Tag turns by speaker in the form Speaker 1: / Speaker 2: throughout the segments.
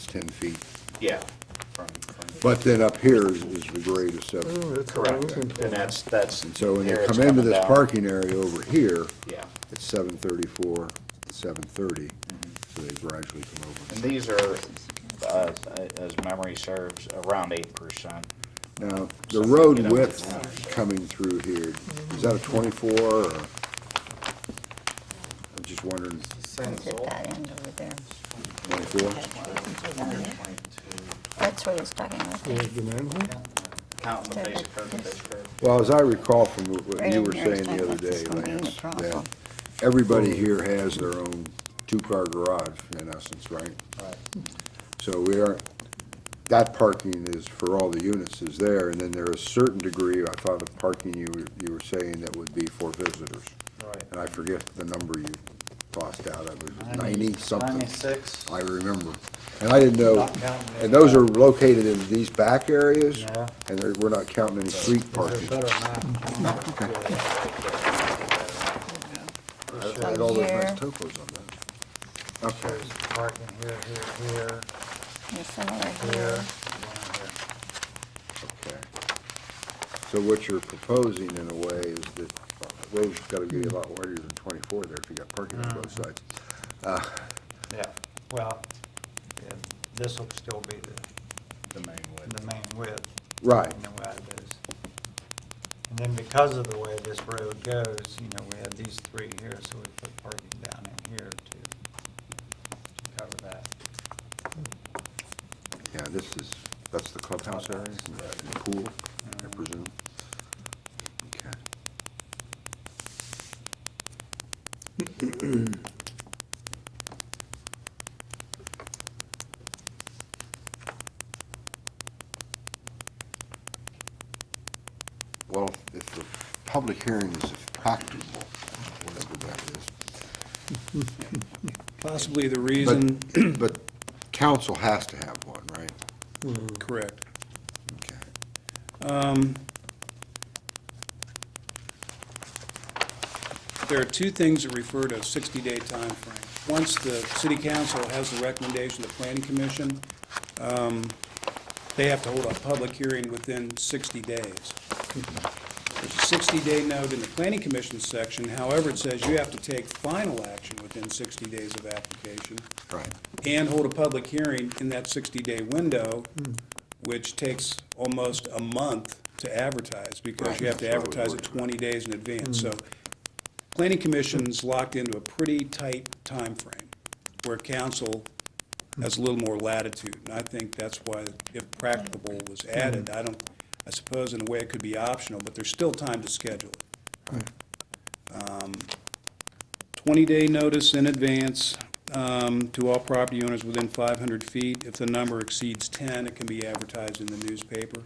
Speaker 1: ten feet.
Speaker 2: Yeah. from- from the-
Speaker 1: But then up here is, is the grade of seven.
Speaker 2: Mm.
Speaker 3: Oh, that's what I
Speaker 2: Correct,
Speaker 3: was
Speaker 2: and
Speaker 3: implying.
Speaker 2: that's, that's.
Speaker 1: And so when you
Speaker 2: here it's
Speaker 1: come into
Speaker 2: coming
Speaker 1: this
Speaker 2: down.
Speaker 1: parking area over here,
Speaker 2: Yeah,
Speaker 1: it's seven thirty-four, seven thirty,
Speaker 2: Mm-hmm.
Speaker 1: so they gradually come
Speaker 2: and
Speaker 1: over.
Speaker 2: these are, uh, as memory serves, around eight percent.
Speaker 1: Now,
Speaker 2: So
Speaker 1: the
Speaker 2: they
Speaker 1: road
Speaker 2: get up to town.
Speaker 1: width coming through here, is that a
Speaker 2: Mm-hmm.
Speaker 1: twenty-four or? I'm just wondering,
Speaker 4: At that end over there.
Speaker 1: twenty-four?
Speaker 4: That's what he's talking about.
Speaker 3: Yeah, the manhole?
Speaker 2: Counting the basic curve, the basic curve.
Speaker 1: Well, as I recall from what- what
Speaker 4: Right
Speaker 1: you
Speaker 4: in
Speaker 1: were
Speaker 4: here is
Speaker 1: saying the
Speaker 4: talking
Speaker 1: other
Speaker 4: about this
Speaker 1: day,
Speaker 4: one being the
Speaker 1: Lance, that
Speaker 4: problem.
Speaker 1: everybody here has their own two-car garage, in essence, right?
Speaker 2: Right.
Speaker 1: So we are, that parking is for all the units is there, and then there is certain degree, I thought of parking you, were- you were saying that would be for visitors.
Speaker 2: Right.
Speaker 1: And I forget the number you tossed out, it was ninety-something.
Speaker 2: Ninety-six.
Speaker 1: I remember. And I didn't know,
Speaker 2: Not counting
Speaker 1: and those are located in these back areas?
Speaker 2: Yeah.
Speaker 1: And they're- we're not counting any street parking. I
Speaker 4: From
Speaker 1: had all those nice
Speaker 4: here.
Speaker 1: topos on that. Okay,
Speaker 5: Parking here, here, here,
Speaker 4: There's some over
Speaker 5: here.
Speaker 4: here.
Speaker 1: okay. So what you're proposing in a way is that, road's gotta be a lot wider than twenty-four there if you got parking on both sides. Uh,
Speaker 5: Yeah, well, this will still be the,
Speaker 2: The main width.
Speaker 5: the main width.
Speaker 1: Right.
Speaker 5: And the way it is. And then because of the way this road goes, you know, we had these three here, so we put parking down in here to cover that.
Speaker 1: Yeah, this is, that's the clubhouse area, and the pool, I presume. Okay. Well, if the public hearing is practicable, whatever that is.
Speaker 6: Possibly the
Speaker 1: but-
Speaker 6: reason,
Speaker 1: But council has to have one, right?
Speaker 6: correct.
Speaker 1: Okay.
Speaker 6: Um, There are two things that refer to a 60-day time frame. Once the city council has the recommendation of the planning commission, um, they have to hold a public hearing within 60 days. There's a 60-day note in the planning commission section, however, it says you have to take final action within 60 days of application.
Speaker 1: Right.
Speaker 6: and hold a public hearing in that 60-day window, which takes almost a month to advertise, because you have to
Speaker 1: Right, that's what we
Speaker 6: advertise it
Speaker 1: worked
Speaker 6: 20 days in advance. So planning commission's locked into a pretty tight time frame, where council has a little more latitude. And I think that's why, if practicable was added, I don't, I suppose in a way it could be optional, but there's still time to schedule it. 20-day notice in advance um, to all property owners within 500 feet. If the number exceeds 10, it can be advertised in the newspaper.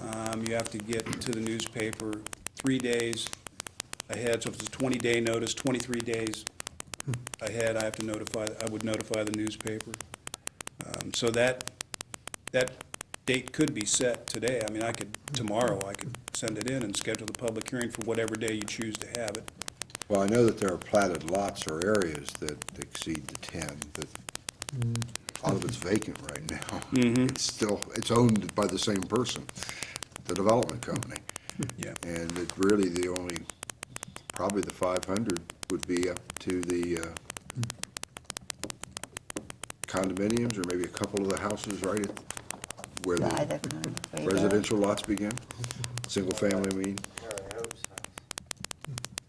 Speaker 6: Um, You have to get to the newspaper three days ahead, so if it's a 20-day notice, 23 days ahead, I have to notify, I would notify the newspaper. Um, So that, that date could be set today. I mean, I could, tomorrow, I could send it in and schedule the public hearing for whatever day you choose to have it.
Speaker 1: Well, I know that there are platted lots or areas that exceed the ten, but a lot of it's vacant right now. It's still, it's owned by the same person, the development company.
Speaker 6: Yeah.
Speaker 1: And it really, the only, probably the five hundred would be up to the uh, condominiums or maybe a couple of the houses right at where
Speaker 4: By
Speaker 1: the
Speaker 4: the freeway.
Speaker 1: residential lots begin, single family, I mean.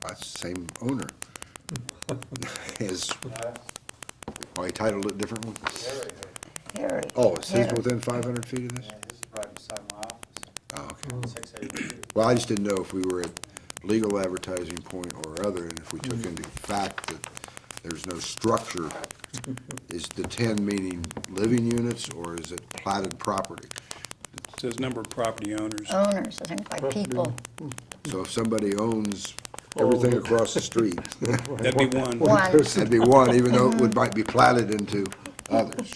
Speaker 1: That's the same owner. His, oh, he titled it differently?
Speaker 4: Here.
Speaker 1: Oh, it's his
Speaker 4: here.
Speaker 1: within five hundred feet of this?
Speaker 5: This is right beside my office,
Speaker 1: Oh, okay.
Speaker 5: six eighty-two.
Speaker 1: Well, I just didn't know if we were at legal advertising point or other, and if we took into fact that there's no structure, is the ten meaning living units, or is it platted property?
Speaker 6: Says number of property owners.
Speaker 4: Owners, I think, like people.
Speaker 1: So if somebody owns everything across the street,
Speaker 6: That'd be one.
Speaker 4: One,
Speaker 1: that'd be one, even though it would, might be platted into others.